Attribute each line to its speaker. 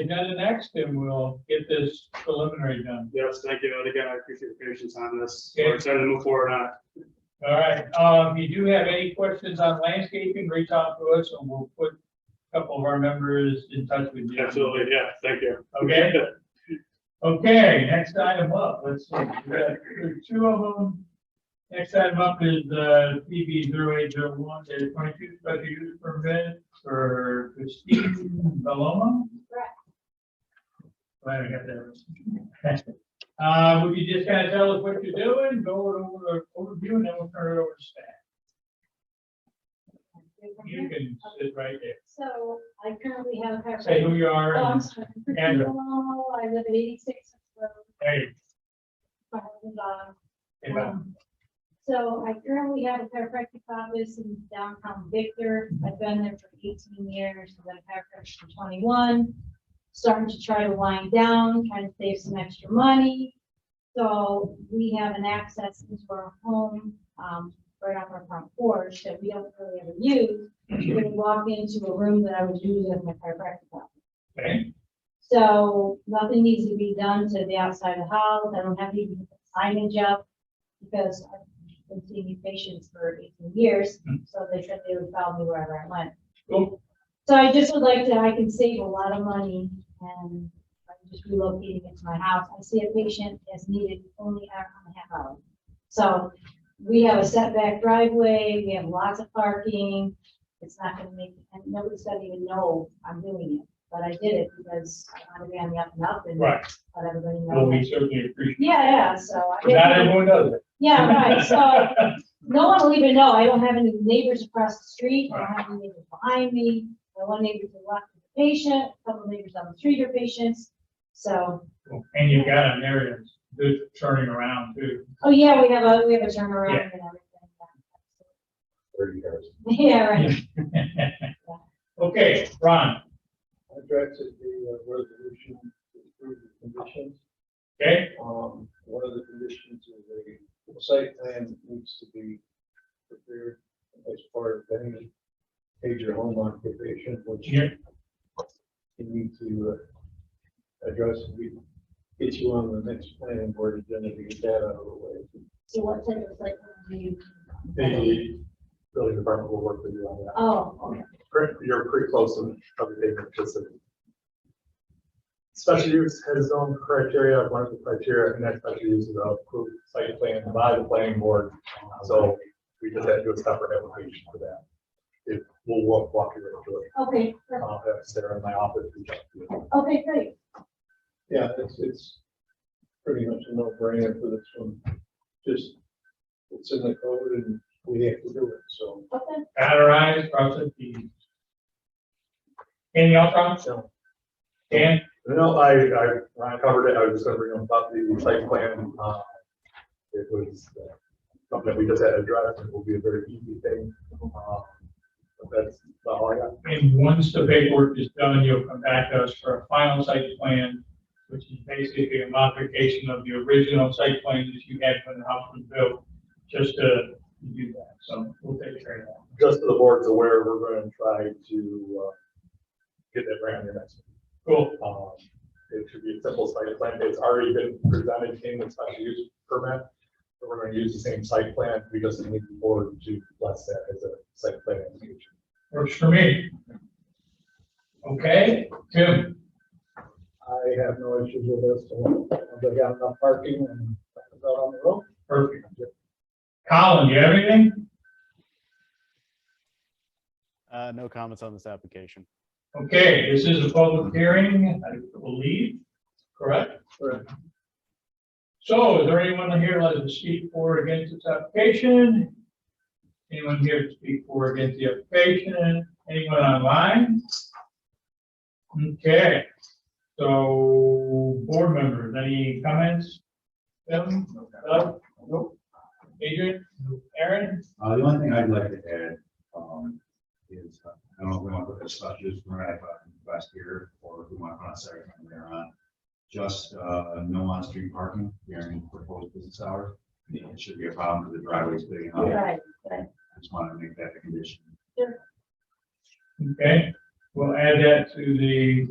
Speaker 1: agenda next and we'll get this preliminary done.
Speaker 2: Yes, thank you. And again, I appreciate your patience on this.
Speaker 1: Okay.
Speaker 2: We're excited to move forward on it.
Speaker 1: All right, um, if you do have any questions on landscaping, reach out to us and we'll put a couple of our members in touch with you.
Speaker 2: Absolutely. Yeah, thank you.
Speaker 1: Okay. Okay, next item up, let's see, we got two of them. Next item up is uh PB zero eight zero one, the twenty-two special use permit for Christine Baloma.
Speaker 3: Correct.
Speaker 1: Glad I got that. right. Uh, would you just kind of tell us what you're doing, go over the overview, and then we'll turn it over to staff. You can sit right there,
Speaker 3: So I currently have. a-
Speaker 1: say who you are,
Speaker 3: Oh, I'm
Speaker 1: and
Speaker 3: sorry.
Speaker 1: Andrew.
Speaker 3: Hello, Oh, I live at eighty-six. Road,
Speaker 1: hey,
Speaker 3: my husband, uh,
Speaker 1: hey, bud.
Speaker 3: um, So I currently have a chiropractic office in downtown Victor. I've been there for eighteen years, I've been a chiropractor for twenty-one. Starting to try to wind down, trying to save some extra money. So we have an access into our home, um, right off our front porch that we don't really ever use. We can walk into a room that I would use as my chiropractic office.
Speaker 1: okay,
Speaker 3: So nothing needs to be done to the outside of the house. I don't have to even put signage up because I've been seeing these patients for eighteen years. So they said they would follow me wherever I went.
Speaker 1: Mm-hmm. cool,
Speaker 3: So I just would like to, I can save a lot of money and I'm just relocating it to my house. I see a patient as needed only hour and a half hour. So we have a setback driveway, we have lots of parking. It's not gonna make, and nobody's gonna even know I'm doing it, but I did it because I want to be on the up and up and let
Speaker 1: right,
Speaker 3: everybody
Speaker 1: well,
Speaker 3: know.
Speaker 1: we certainly appreciate,
Speaker 3: Yeah, yeah, so. I-
Speaker 1: it. not everyone does it.
Speaker 3: Yeah, right, so no one will even know. I don't have any neighbors across the street. I don't have any neighbors behind me. My one neighbor to the left is a patient, a couple neighbors on the street are patients. So,
Speaker 1: And you've got an area that's good for turning around too.
Speaker 3: oh yeah, we have a, we have a turnaround and everything.
Speaker 4: thirty cars.
Speaker 3: Yeah, right.
Speaker 1: Okay, Ron,
Speaker 4: I drafted the uh, resolution to approve the conditions.
Speaker 1: okay,
Speaker 4: Um, one of the conditions is a site plan needs to be prepared as part of any major home occupation, which you
Speaker 1: Yeah.
Speaker 4: need to uh, address. We get you on the next planning board agenda to get that out of the way.
Speaker 3: So what type of like, do you?
Speaker 4: The building department will work with you on that.
Speaker 3: Oh, okay.
Speaker 5: pretty- you're pretty close on everything because of. Special use has its own criteria, one of the criteria, and that special use is a approved site plan by the planning board. So we just had to do a separate application for that. It will walk, walk you right through it.
Speaker 3: Okay, perfect.
Speaker 5: I'll have Sarah in my office. reach out to you.
Speaker 3: okay, great.
Speaker 4: Yeah, it's, it's pretty much a no-brainer for this one. Just, it's in the code and we have to do it, so.
Speaker 3: Okay.
Speaker 1: categorize, process these. Anything else, Ron?
Speaker 5: So,
Speaker 1: Dan,
Speaker 5: No, I, I, when I covered it, I was just gonna bring up about the site plan. uh, It was uh, something that we just had to address, it will be a very easy thing. uh, but That's about all I got.
Speaker 1: and once the paperwork is done, you'll come back to us for a final site plan, which is basically a modification of the original site plan that you had when the house was built, just to do that, so we'll take care of that.
Speaker 5: just so the board's aware, we're going to try to uh, get that right on your next.
Speaker 1: Cool,
Speaker 5: um, It should be a simple site plan. It's already been presented in the special use permit. but We're going to use the same site plan. We just need the board to bless that as a site plan application.
Speaker 1: works for me. Okay, Tim?
Speaker 4: I have no issues with this, so they got enough parking and that's out on the road.
Speaker 1: Perfect. Colin, you have anything?
Speaker 6: Uh, no comments on this application.
Speaker 1: Okay, this is a public hearing, I believe, correct?
Speaker 4: Correct.
Speaker 1: So is there anyone here that to speak for or against this application? Anyone here to speak for or against the application? Anyone online? Okay, so board members, any comments? Tim? Doug? Adrian? Aaron?
Speaker 7: Uh, the only thing I'd like to add, um, is, uh, I don't know if we want to put a special use permit on last year, or if we want to put a second one there on. Just, uh, no on-street parking during proposed business hours. It should be a problem for the driveways big enough. I
Speaker 3: Right, right.
Speaker 7: Just want to make that a condition.
Speaker 1: Okay, we'll add that to the